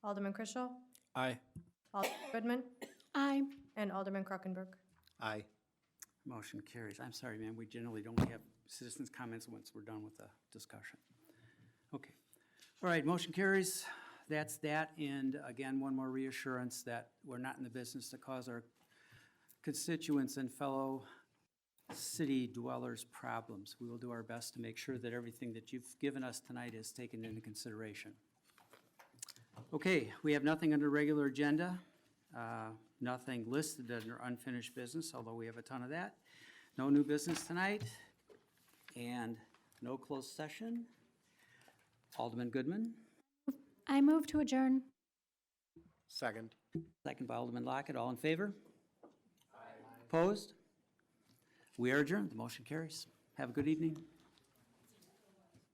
Alderman Crisell, Aye. Alderman Goodman, Aye. and Alderman Krokenberg. Aye. Motion carries. I'm sorry, ma'am, we generally don't have citizens' comments once we're done with the discussion. Okay. All right, motion carries. That's that. And again, one more reassurance that we're not in the business to cause our constituents and fellow city dwellers problems. We will do our best to make sure that everything that you've given us tonight is taken into consideration. Okay, we have nothing under regular agenda, uh, nothing listed under unfinished business, although we have a ton of that. No new business tonight, and no closed session. Alderman Goodman, I move to adjourn. Second. second by Alderman Lockett, all in favor? Opposed? We are adjourned, the motion carries. Have a good evening.